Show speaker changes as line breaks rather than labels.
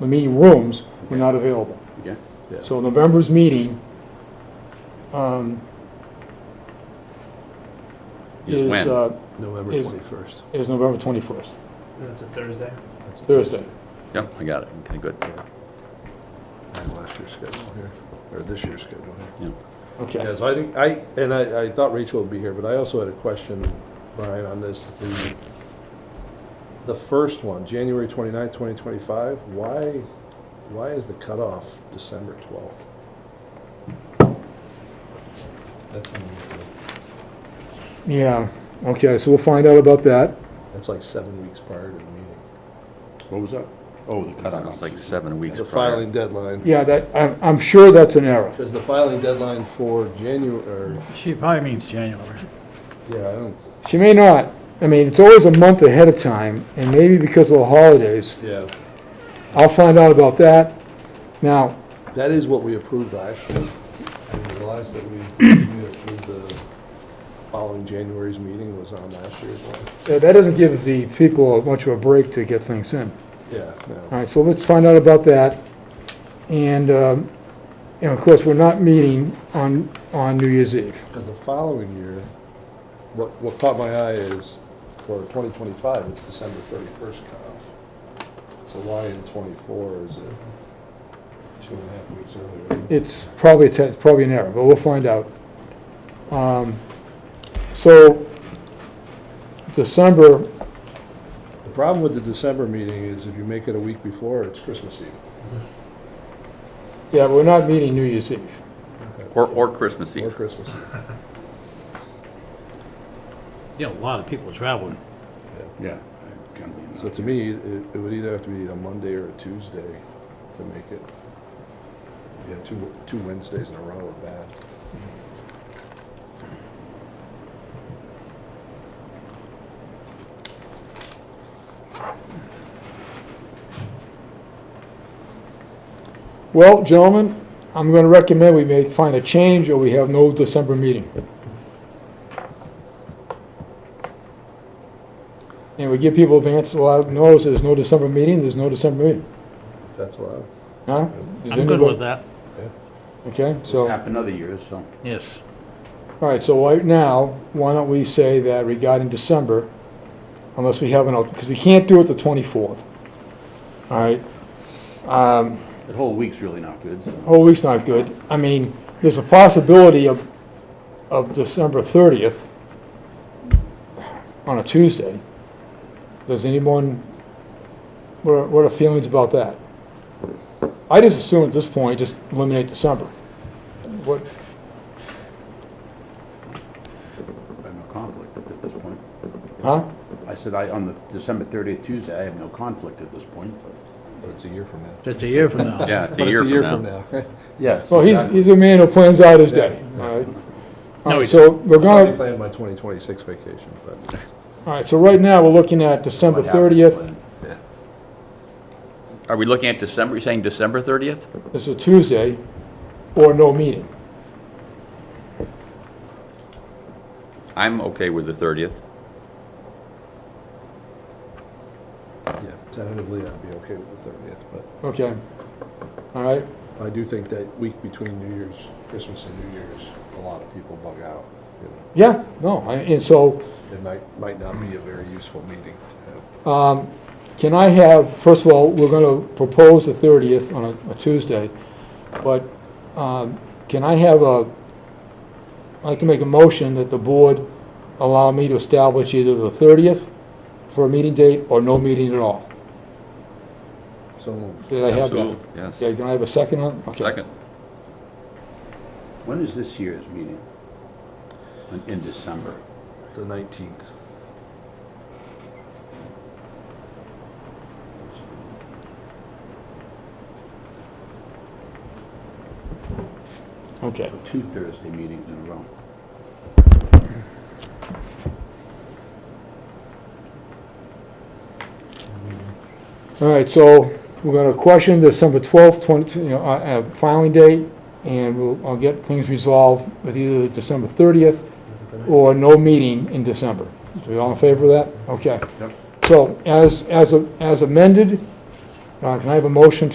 the meeting rooms were not available.
Yeah,
So November's meeting, um,
Is
is,
when?
uh,
November
Is-
21st.
is November twenty-first,
That's a Thursday.
That's a
Thursday.
yep, I got it, okay, good.
I have last year's schedule here, or this year's schedule here.
Yeah.
Okay,
Yes, I think, I, and I, I thought Rachel would be here, but I also had a question, Brian, on this, the, the first one, January 29th, 2025, why, why is the cutoff December 12th? That's unusual.
yeah, okay, so we'll find out about that.
That's like seven weeks prior to the meeting.
What was that? Oh, the cutoff.
It's like seven weeks
The
prior.
filing deadline,
Yeah, that, I'm, I'm sure that's an error.
because the filing deadline for January, or,
She probably means January.
yeah, I don't,
She may not, I mean, it's always a month ahead of time, and maybe because of the holidays,
yeah.
I'll find out about that. Now,
That is what we approved last year. I didn't realize that we we approved the following January's meeting was on last year's one.
that that doesn't give the people much of a break to get things in.
Yeah,
All
no.
right, so let's find out about that. And, um, and of course, we're not meeting on, on New Year's Eve.
Because the following year, what, what caught my eye is for 2025, it's December 31st cutoff. So why in '24 is it two and a half weeks earlier?
It's probably, a te- probably an error, but we'll find out. Um, So December,
The problem with the December meeting is if you make it a week before, it's Christmas Eve.
yeah, we're not meeting New Year's Eve.
Or, or Christmas
Or
Eve.
Christmas Eve.
Yeah, a lot of people traveling.
Yeah. I can't believe
So
that.
to me, it, it would either have to be a Monday or a Tuesday to make it. Yeah, two, two Wednesdays in a row are bad.
Well, gentlemen, I'm going to recommend we may find a change or we have no December meeting. And we give people advance a lot of notice, there's no December meeting, there's no December meeting.
That's allowed.
Huh? Does
I'm good with
anybody-
that,
Okay,
It's
so,
happened other years, so.
yes.
all right, so right now, why don't we say that regarding December, unless we have an, because we can't do it the 24th. All right? Um,
The whole week's really not good, so.
whole week's not good. I mean, there's a possibility of, of December 30th on a Tuesday. Does anyone, what are, what are feelings about that? I just assume at this point, just eliminate December. What,
I have no conflict at this point.
huh?
I said I, on the December thirtieth, Tuesday, I have no conflict at this point.
But it's a year from now.
It's a year from now.
Yeah, it's
But
a year from now.
now. Yes.
Well, he's, he's a man who plans out his day, all right? All right, so we're
I'm already
gonna,
planning my 2026 vacation, but
all right, so right now, we're looking at December
What happened
30th.
when-
Are we looking at December, you're saying December thirtieth?
It's a Tuesday, or no meeting.
I'm okay with the thirtieth.
yeah, tentatively I'd be okay with the 30th. But
Okay. All right,
I do think that week between New Year's, Christmas and New Year's, a lot of people bug out. you know.
yeah, no, I- and so,
It might, might not be a very useful meeting to have.
Um, Can I have, first of all, we're going to propose the 30th on a- a Tuesday, but um, can I have a, I'd like to make a motion that the board allow me to establish either the 30th for a meeting date or no meeting at all.
So moved.
Did I have that?
Absolutely, Yes,
Okay, can I have a second on? it? Okay.
second.
When is this year's meeting? In- In December.
The 19th.
Okay,
So Two Thursday meetings in a row.
all right, so we're going to question December 12th, 20, you know, uh, uh, filing date, and we'll, I'll get things resolved with either December 30th or no meeting in December. So we all in favor of that? Okay.
Yep.
So as, as a- as amended, Uh, Can I have a motion to